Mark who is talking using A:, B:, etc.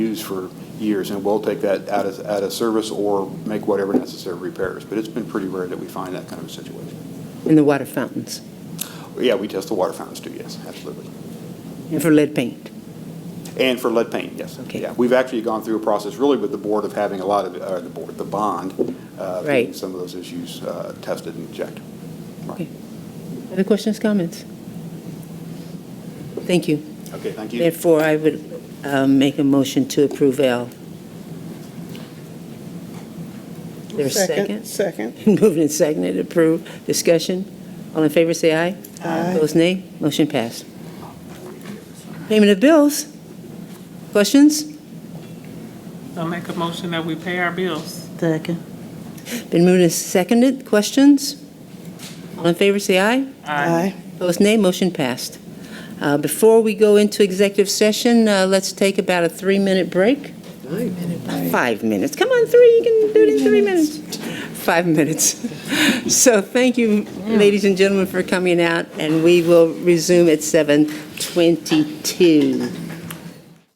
A: used for years, and we'll take that out of, out of service or make whatever necessary repairs. But it's been pretty rare that we find that kind of a situation.
B: in the water fountains
A: Yeah, we test the water fountains too, yes, absolutely.
B: and for lead paint.
A: And for lead paint, yes.
B: Okay.
A: Yeah, we've actually gone through a process really with the board of having a lot of, uh, the board, the bond, uh, getting
B: Right.
A: some of those issues, uh, tested and checked. Right.
B: Okay. Other questions, comments? Thank you.
A: Okay, thank you.
B: Therefore, I would um, make a motion to approve L. There's a second?
C: Second.
B: Moved and seconded, approved. Discussion? All in favor, say aye. Aye. Opposed, nay. Motion passed. Payment of bills? Questions?
C: I'll make a motion that we pay our bills.
D: Second.
B: Been moved and seconded. Questions? All in favor, say aye.
D: Aye.
B: Opposed, nay. Motion passed. Uh, Before we go into executive session, uh, let's take about a three-minute break. Five minutes. Come on, three, you can do it in three minutes. Five minutes. So thank you, ladies and gentlemen, for coming out, and we will resume at 7:22.